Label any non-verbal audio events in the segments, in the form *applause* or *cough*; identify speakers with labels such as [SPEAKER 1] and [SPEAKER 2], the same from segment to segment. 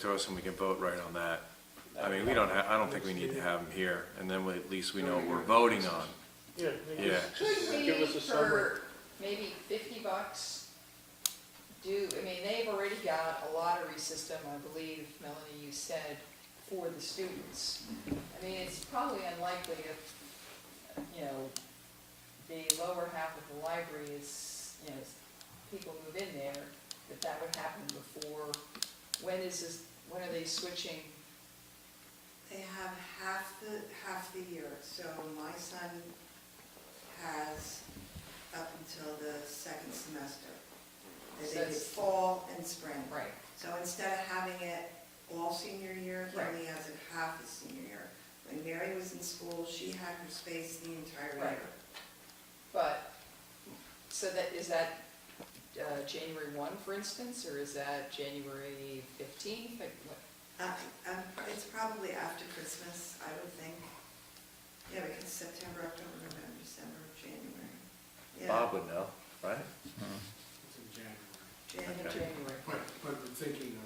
[SPEAKER 1] to us and we can vote right on that. I mean, we don't have, I don't think we need to have them here, and then we- at least we know what we're voting on.
[SPEAKER 2] Yeah. they
[SPEAKER 1] Yeah.
[SPEAKER 2] just-
[SPEAKER 3] Could
[SPEAKER 2] just Give
[SPEAKER 3] we
[SPEAKER 2] us a summary.
[SPEAKER 3] for maybe fifty bucks do, I mean, they've already got a lottery system, I believe, Melanie, you said, for the students. I mean, it's probably unlikely if, you know, the lower half of the library is, you know, people move in there, that that would happen before, when is this, when are they switching?
[SPEAKER 4] They have half the, half the year, so my son has up until the second semester. They
[SPEAKER 3] So
[SPEAKER 4] did
[SPEAKER 3] it's-
[SPEAKER 4] fall and spring.
[SPEAKER 3] Right.
[SPEAKER 4] So instead of having it all senior year, he
[SPEAKER 3] Right.
[SPEAKER 4] only has it half his senior year. When Mary was in school, she had her space the entire
[SPEAKER 3] Right.
[SPEAKER 4] year.
[SPEAKER 3] But, so that, is that uh, January 1, for instance, or is that January 15th? Like, what-
[SPEAKER 4] Uh, um, It's probably after Christmas, I would think. Yeah, because September, October, November, December, January. Yeah,
[SPEAKER 1] Bob would know, right?
[SPEAKER 5] It's in January.
[SPEAKER 4] January.
[SPEAKER 3] end of
[SPEAKER 1] Okay.
[SPEAKER 3] January?
[SPEAKER 5] But, but we're thinking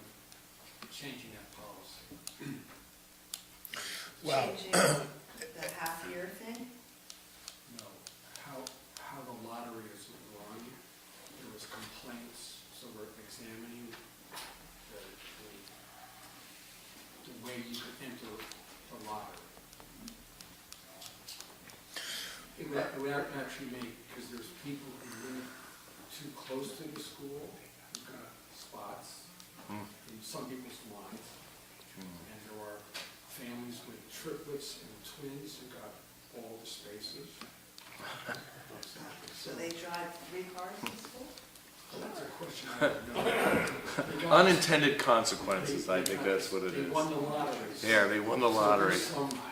[SPEAKER 5] of changing that policy.
[SPEAKER 6] Well-
[SPEAKER 4] Changing the half-year thing?
[SPEAKER 5] No, how, how the lottery is run, there was complaints, so we're examining the, the, the way you could enter the lottery. It would, it would actually make, because there's people who live too close to the school, who've got spots
[SPEAKER 1] Hmm.
[SPEAKER 5] in some people's lines. And there are families with triplets and twins who got all the spaces.
[SPEAKER 4] So they drive three cars to school?
[SPEAKER 5] That's a question I don't know. They got-
[SPEAKER 1] Unintended consequences, I think that's what it
[SPEAKER 5] They
[SPEAKER 1] is.
[SPEAKER 5] won the lottery.
[SPEAKER 1] Yeah, they won the lottery.
[SPEAKER 5] So there's some-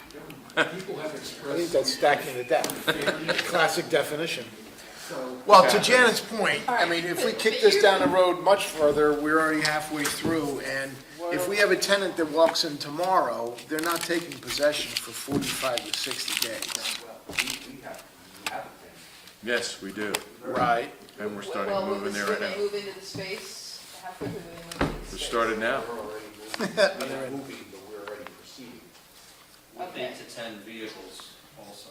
[SPEAKER 5] People have
[SPEAKER 6] I think
[SPEAKER 5] expressed.
[SPEAKER 6] that's stacking the deck, classic definition.
[SPEAKER 5] So,
[SPEAKER 6] Well, to Janet's point, I mean, if we kick this down the road much further, we're already halfway through, and if we have a tenant that walks in tomorrow, they're not taking possession for 45 to 60 days.
[SPEAKER 1] Yes, we do,
[SPEAKER 6] Right.
[SPEAKER 1] and we're starting
[SPEAKER 3] Well,
[SPEAKER 1] to move in there right
[SPEAKER 3] When they
[SPEAKER 1] now.
[SPEAKER 3] move into the space, how quickly do they move into the
[SPEAKER 1] We
[SPEAKER 3] space?
[SPEAKER 1] started now.
[SPEAKER 7] We're already moving, we're not moving, but we're already proceeding.
[SPEAKER 8] With
[SPEAKER 3] Okay.
[SPEAKER 8] eight to 10 vehicles also.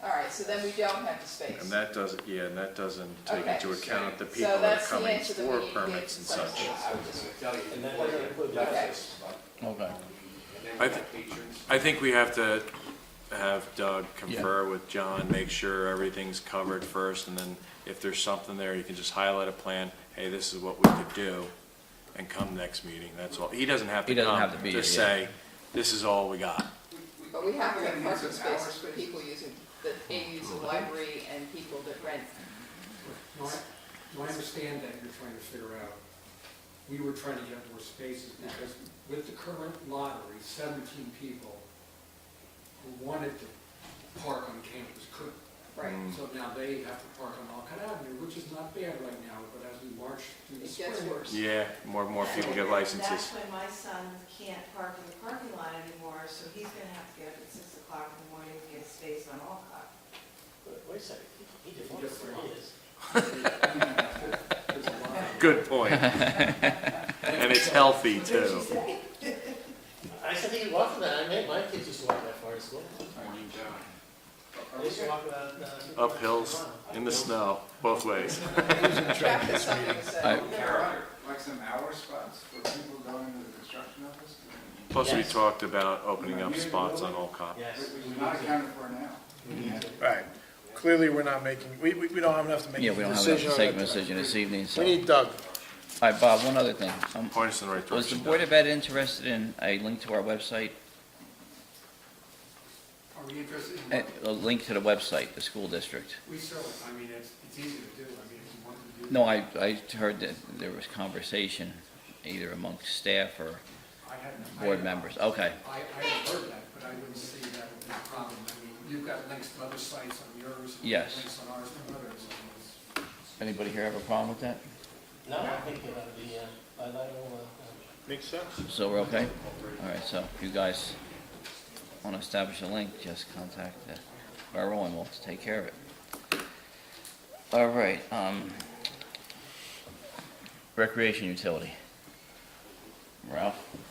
[SPEAKER 3] All right, so then we don't have the space.
[SPEAKER 1] And that doesn't, yeah, and that doesn't take
[SPEAKER 3] Okay.
[SPEAKER 1] into account the
[SPEAKER 3] So
[SPEAKER 1] people that are
[SPEAKER 3] that's the
[SPEAKER 1] coming
[SPEAKER 3] answer that we
[SPEAKER 1] for
[SPEAKER 3] need to give
[SPEAKER 1] permits and
[SPEAKER 3] to Site
[SPEAKER 1] such.
[SPEAKER 3] Plan.
[SPEAKER 7] I was gonna tell you.
[SPEAKER 8] And then
[SPEAKER 7] what
[SPEAKER 8] we're
[SPEAKER 7] it
[SPEAKER 8] gonna put
[SPEAKER 7] does
[SPEAKER 3] that-
[SPEAKER 7] is, but- And then
[SPEAKER 1] I
[SPEAKER 7] we
[SPEAKER 1] thi-
[SPEAKER 7] have patrons.
[SPEAKER 1] I think we have to have Doug confer with John, make sure everything's covered first, and then if there's something there, you can just highlight a plan, hey, this is what we could do, and come next meeting, that's all. He doesn't have to
[SPEAKER 9] He doesn't
[SPEAKER 1] come,
[SPEAKER 9] have to be
[SPEAKER 1] just
[SPEAKER 9] here,
[SPEAKER 1] say, this is all we got.
[SPEAKER 3] But we have to
[SPEAKER 7] We're
[SPEAKER 3] have
[SPEAKER 7] gonna use
[SPEAKER 3] parking
[SPEAKER 7] an hour
[SPEAKER 3] spaces for
[SPEAKER 7] space.
[SPEAKER 3] people using, that A, use the library and people that rent.
[SPEAKER 5] no, I, no, I understand that you're trying to figure out, we were trying to get more spaces because with the current lottery, seventeen people who wanted to park on campus couldn't.
[SPEAKER 3] Right.
[SPEAKER 1] Mm. Hmm.
[SPEAKER 5] So now they have to park on Alcott Avenue, which is not bad right now, but as we march through the
[SPEAKER 3] It
[SPEAKER 5] spring.
[SPEAKER 3] gets worse.
[SPEAKER 1] Yeah, more and more people get licenses.
[SPEAKER 4] That's when my son can't park in the parking lot anymore, so he's gonna have to get up at six o'clock in the morning to get space on Alcott.
[SPEAKER 10] Wait a second, he he did one
[SPEAKER 5] Yes,
[SPEAKER 10] for
[SPEAKER 5] sir.
[SPEAKER 10] years.
[SPEAKER 5] There's a lot of-
[SPEAKER 1] Good
[SPEAKER 9] *laughs*
[SPEAKER 1] point. And it's healthy, too.
[SPEAKER 10] I said he walked that, I made my kids used to walk that far to school. They used to walk about. uh,
[SPEAKER 1] Up hills, in the snow, both ways.
[SPEAKER 3] Back to something that-
[SPEAKER 7] Like some hour spots for people going to the construction office?
[SPEAKER 1] Plus, we
[SPEAKER 10] Yes.
[SPEAKER 1] talked about opening up spots on Olcott.
[SPEAKER 10] Yes.
[SPEAKER 7] Which is not accounted for now.
[SPEAKER 6] Right. Clearly, we're not making, we, we we don't have enough to make
[SPEAKER 9] Yeah,
[SPEAKER 6] a
[SPEAKER 9] we don't have enough
[SPEAKER 6] decision
[SPEAKER 9] to
[SPEAKER 6] on
[SPEAKER 9] take a
[SPEAKER 6] that.
[SPEAKER 9] decision this evening, so.
[SPEAKER 6] We
[SPEAKER 9] All
[SPEAKER 6] need Doug.
[SPEAKER 9] right, Bob, one other thing. Um,
[SPEAKER 1] Point us in the right
[SPEAKER 9] Was the
[SPEAKER 1] direction.
[SPEAKER 9] Board of Ed interested in a link to our website,
[SPEAKER 5] Are we interested in,
[SPEAKER 9] eh, a a link to the website, the school district?
[SPEAKER 5] we sell it, I mean, it's, it's easy to do, I mean, if you want to do.
[SPEAKER 9] No, I, I heard that there was conversation either amongst staff or
[SPEAKER 5] I haven't- I-
[SPEAKER 6] uh,
[SPEAKER 9] board members. Okay,
[SPEAKER 5] I, I have heard that, but I wouldn't see that would be a problem, I mean, you've got links to other sites on yours. and
[SPEAKER 9] Yes.
[SPEAKER 5] Links on ours and others, and it's-
[SPEAKER 9] anybody here have a problem with that?
[SPEAKER 10] No, I think it ought to be, uh, by law, uh,
[SPEAKER 6] Makes sense.
[SPEAKER 9] So we're okay? All right, so if you guys want to establish a link, just contact uh, Barrow and we'll take care of it. All right, um, recreation utility. Ralph?